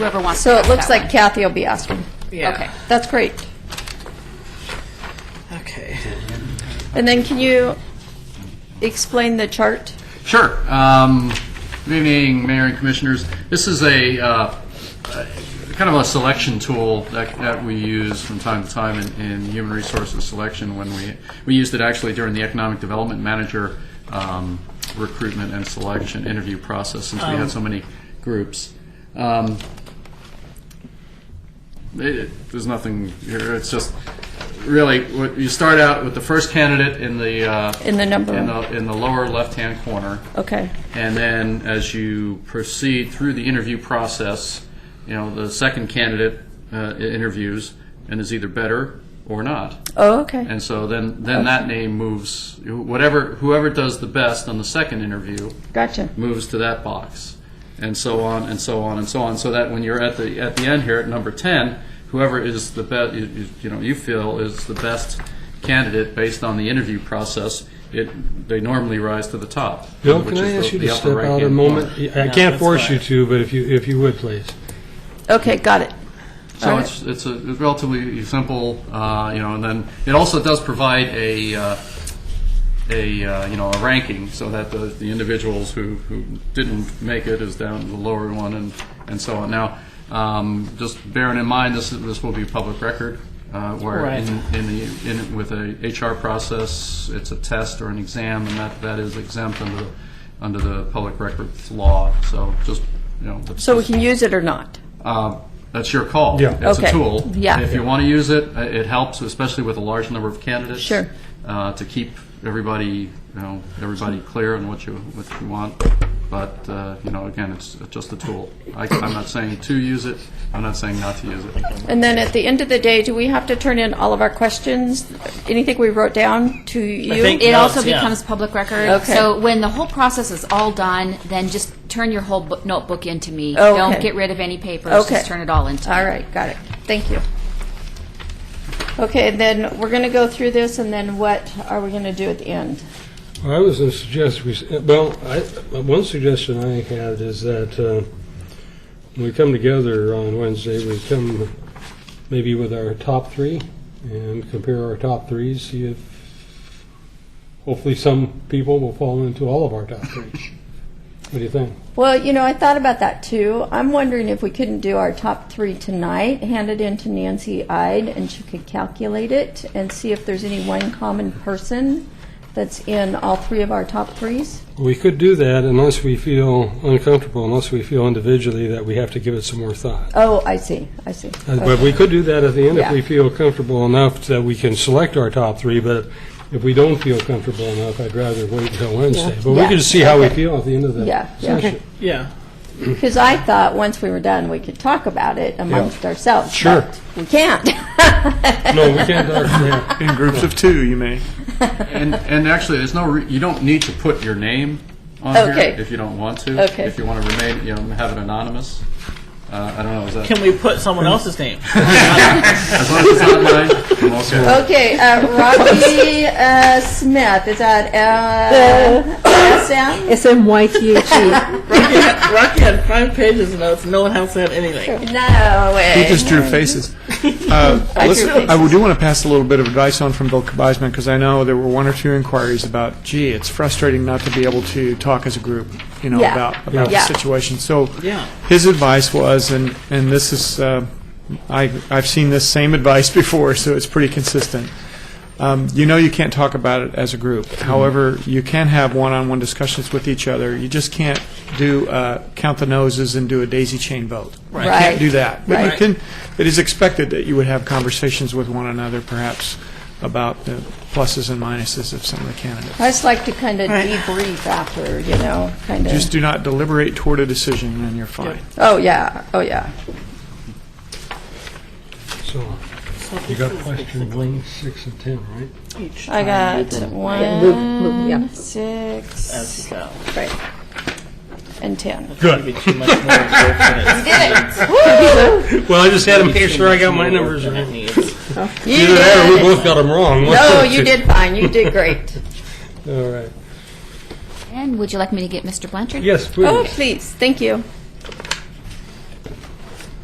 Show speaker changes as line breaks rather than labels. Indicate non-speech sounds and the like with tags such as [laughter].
whoever wants to
So
ask
it looks
that
like Kathy will be asking.
Yeah.
Okay, that's great.
Okay.
And then can you explain the chart?
Sure. Um, Good evening, Mayor and Commissioners. This is a, uh, a- kind of a selection tool that, that we use from time to time in, in human resources selection when we, we used it actually during the economic development manager um, recruitment and selection interview process since we had so many groups. Um, it, there's nothing here, it's just, really, what- you start out with the first candidate in the, uh,
In the number.
in the, in the lower left-hand corner.
Okay,
And then, as you proceed through the interview process, you know, the second candidate uh, interviews and is either better or not.
oh, okay,
And so then, then that name moves, whatever, whoever does the best on the second interview
gotcha.
moves to that box, and so on and so on and so on. So that when you're at the at the end here at number ten, whoever is the best, you, you- you know, you feel is the best candidate based on the interview process, it they normally rise to the top.
Bill,
which
can I
is
ask
the-
you to
the upper
step out a
right-hand
moment?
corner.
I can't force you to, but if you, if you would, please.
Okay, got it.
So
All right.
it's it's a relatively simple, uh, you know, and then it also does provide a. Uh, a uh, you know a ranking so that the, the individuals who, who didn't make it is down to the lower one and, and so on. Now, um, just bearing in mind this this will be public record, uh, where in, in the in with a HR process it's a test or an exam and that, that is exempt under the, under the public records law. So just you know
So we can use it or not?
uh, that's your call.
Yeah.
It's
Okay.
a tool.
Yeah.
If you want to use it, uh, it helps, especially with a large number of candidates.
Sure.
uh, To keep everybody, you know, everybody clear on what you, what you want. But, uh, you know, again, it's just a tool. I- I'm not saying to use it, I'm not saying not to use it.
And then at the end of the day, do we have to turn in all of our questions, anything we wrote down to you?
think-
It
Yeah,
also
yeah.
becomes public record.
Okay.
So when the whole process is all done, then just turn your whole book, notebook into me.
Oh, Okay.
Don't get rid of any papers.
Okay.
Just turn it all into me.
All right, got it. Thank you. Okay, and then we're going to go through this, and then what are we going to do at the end?
Well, I was going to suggest, we s- uh, well, I, one suggestion I had is that uh, when we come together on Wednesday, we come maybe with our top three and compare our top threes, see if, hopefully some people will fall into all of our top three. What do you think?
Well, you know, I thought about that too. I'm wondering if we couldn't do our top three tonight, hand it in to Nancy Ide, and she could calculate it and see if there's any one common person that's in all three of our top threes.
We could do that unless we feel uncomfortable, unless we feel individually that we have to give it some more thought.
Oh, I see, I see.
Uh, But we could do that at the end if
Yeah.
we feel comfortable enough that we can select our top three, but if we don't feel comfortable enough, I'd rather wait until Wednesday. But we
Yeah.
could just see how we feel at the end of the
Yeah, yeah.
session.
Yeah.
Because I thought once we were done, we could talk about it amongst ourselves.
Sure.
but We can't. [laughs]
No, we can't, talk- yeah.
In groups of two, you may.
And, and actually, there's no, re- you don't need to put your name on
Okay.
here if you don't want to.
Okay.
If you want to remain, you know, have it anonymous. Uh, I don't know, is that,
Can we put someone else's name?
as long as it's
[laughs]
not mine, I'm okay.
Okay, uh, Robbie uh, Smith, is that uh, SM?
S-M-Y-T-H-E.
Rocky, had, [laughs] Rocky had five pages of notes. No one else had anything.
No
He
way.
just
[laughs]
drew faces. Uh, listen, I do want to pass a little bit of advice on from Bill Kabizman because I know there were one or two inquiries about, gee, it's frustrating not to be able to talk as a group, you know,
Yeah.
about about
Yeah.
the situation. So
Yeah.
his advice was, and and this is, uh, I I've seen this same advice [laughs] before, so it's pretty consistent. Um, you know, you can't talk about it as a group. However, you can have one-on-one discussions with each other. You just can't do uh, count the noses and do a daisy chain vote. Right. You
Right.
can't do that. But you
Right.
can, it is expected that you would have conversations with one another, perhaps, about the pluses and minuses of some of the candidates.
I just like to kind of debrief after, you know, kind of.
Just do not deliberate toward a decision, and you're fine.
Oh, yeah, oh, yeah.
So, you got question one, six, and 10, right?
I got
Move, move, yeah.
one, six,
So,
right, and 10.
maybe too much more [laughs] work
Well, I just had to make sure I got my numbers right. Either that or we both got them wrong. One
No,
of the
you
[laughs] two.
did fine, you did great.
All right.
And would you like me to get Mr. Blanchard?
Yes,
Oh,
please.
please, thank you.